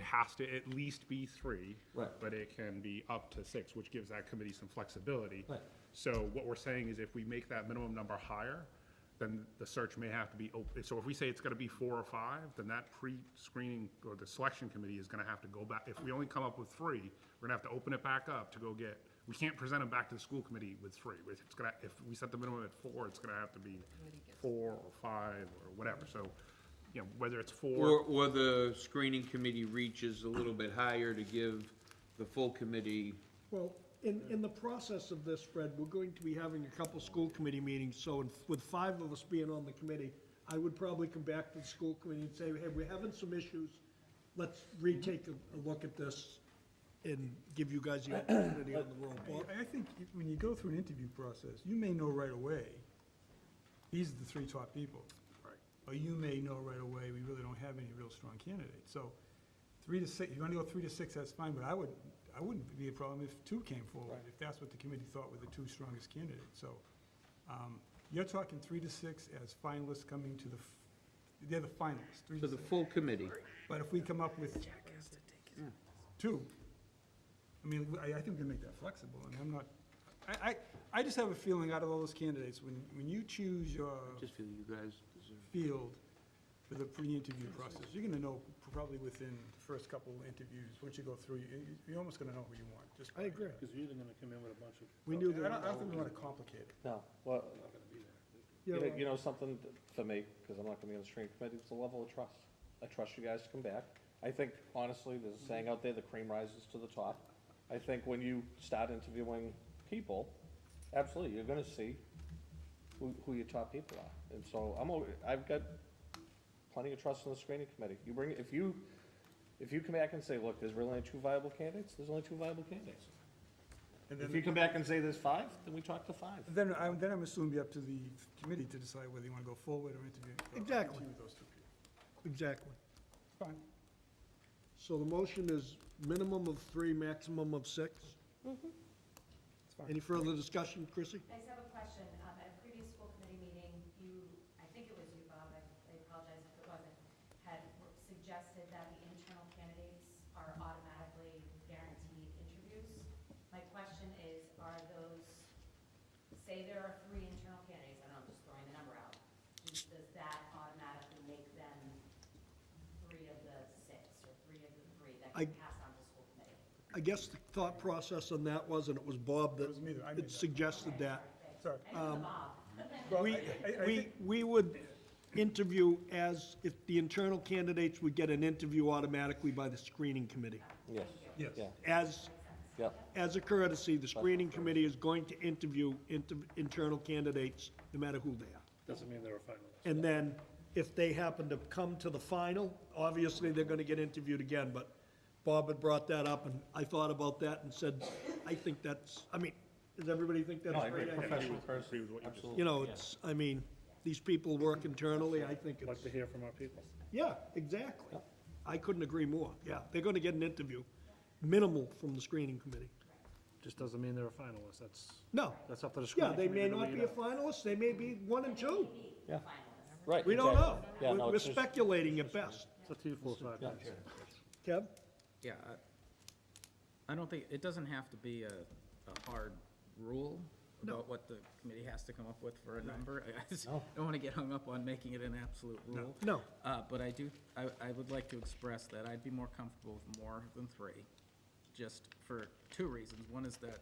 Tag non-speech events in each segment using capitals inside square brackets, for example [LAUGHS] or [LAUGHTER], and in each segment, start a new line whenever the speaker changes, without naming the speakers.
has to at least be three.
Right.
But it can be up to six, which gives that committee some flexibility.
Right.
So what we're saying is if we make that minimum number higher, then the search may have to be open. So if we say it's gonna be four or five, then that pre-screening or the selection committee is gonna have to go back. If we only come up with three, we're gonna have to open it back up to go get, we can't present them back to the school committee with three. It's gonna, if we set the minimum at four, it's gonna have to be four or five or whatever. So, you know, whether it's
Or,
four,
or the screening committee reaches a little bit higher to give the full committee,
Well, in, in the process of this, Fred, we're going to be having a couple school committee meetings, so in- with five of us being on the committee, I would probably come back to the school committee and say, hey, we're having some issues, let's retake a, a look at this and give you guys the opportunity on the roll. Well,
I, I think if- when you go through an interview process, you may know right away, these are the three top people. Right. Or you may know right away, we really don't have any real strong candidates. So three to six, if you want to go three to six, that's fine, but I would, I wouldn't be a problem if two came forward, if that's what the committee thought were the two strongest candidates. So um, you're talking three to six as finalists coming to the, f- they're the finalists, three
to
to
the
six.
full committee.
But if we come up with two, I mean, I, I think we can make that flexible, I mean, I'm not, I, I, I just have a feeling out of all those candidates, when, when you choose your
I Just feel you guys deserve.
field for the pre-interview process, you're gonna know probably within the first couple interviews, once you go through, you, you- you're almost gonna know who you want, just.
I agree.
Because you're either gonna come in with a bunch of,
We knew
I don't, I
that.
don't think we wanna complicate it.
No, well,
not gonna be there.
Yeah,
you know, you know something th- for me, because I'm not gonna be on the screen committee, it's the level of trust. I trust you guys to come back. I think honestly, there's a saying out there, the cream rises to the top. I think when you start interviewing people, absolutely, you're gonna see who, who your top people are. And so I'm, al- I've got plenty of trust in the screening committee. You bring, if you, if you come back and say, look, there's really only two viable candidates, there's only two viable candidates.
And
If you
then,
come back and say there's five, then we talk to five.
then I'm, then I'm assuming it'd be up to the committee to decide whether you wanna go forward or interview. or
Exactly.
interview those two people.
exactly.
Fine.
So the motion is minimum of three, maximum of six? Any further discussion, Chrissy?
I just have a question. Um, At a previous school committee meeting, you, I think it was you, Bob, I I apologize if it wasn't, had suggested that the internal candidates are automatically guaranteed interviews. My question is, are those, say there are three internal candidates, I don't know, I'm just throwing the number out. Does does that automatically make them three of the six or three of the three that
I-
can pass on to school committee?
I guess the thought process on that was, and it was Bob that
It was me that- I made
had
that.
suggested that.
Sorry.
We, we, we would interview as, if the internal candidates would get an interview automatically by the screening committee.
Yes,
Yes.
yeah,
As,
yeah.
as a courtesy, the screening committee is going to interview inter, internal candidates, no matter who they are.
Doesn't mean they're a finalist.
And then, if they happen to come to the final, obviously, they're gonna get interviewed again, but Bob had brought that up, and I thought about that and said, I think that's, I mean, does everybody think that's a great idea?
Professional
agree with what you just said.
You know, it's, I mean, these people work internally, I think
Like
it's,
to hear from our people.
yeah, exactly. I couldn't agree more, yeah, they're gonna get an interview, minimal from the screening committee.
Just doesn't mean they're a finalist, that's,
No,
that's up to the school.
yeah, they may not be a finalist, they may be one and two,
Right.
we don't know.
exactly. Yeah, no,
We're we're
it's just-
speculating at best.
It's up to you four, five minutes.
Kev?
Yeah, I- I don't think, it doesn't have to be a, a hard rule about what the committee has to come up with for a number. [LAUGHS] I- I just don't want to get hung up on making it an absolute rule.
No.
Uh, but I do, I, I would like to express that I'd be more comfortable with more than three, just for two reasons. One is that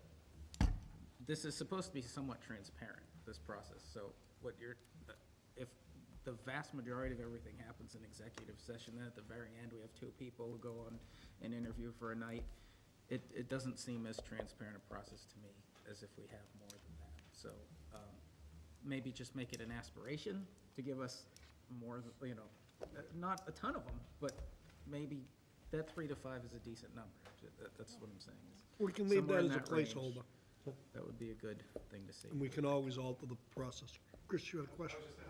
this is supposed to be somewhat transparent, this process, so what you're, if the vast majority of everything happens in executive session, then at the very end, we have two people who go on an interview for a night, it, it doesn't seem as transparent a process to me as if we have more than that. So, um, maybe just make it an aspiration to give us more, th- you know, uh, not a ton of them, but maybe that three to five is a decent number. That- That's what I'm saying. is
We can leave
somewhere
that
in
as a
range.
placeholder,
That would be a good thing to see.
and we can always alter the process. Chris, you had a question?
I was just,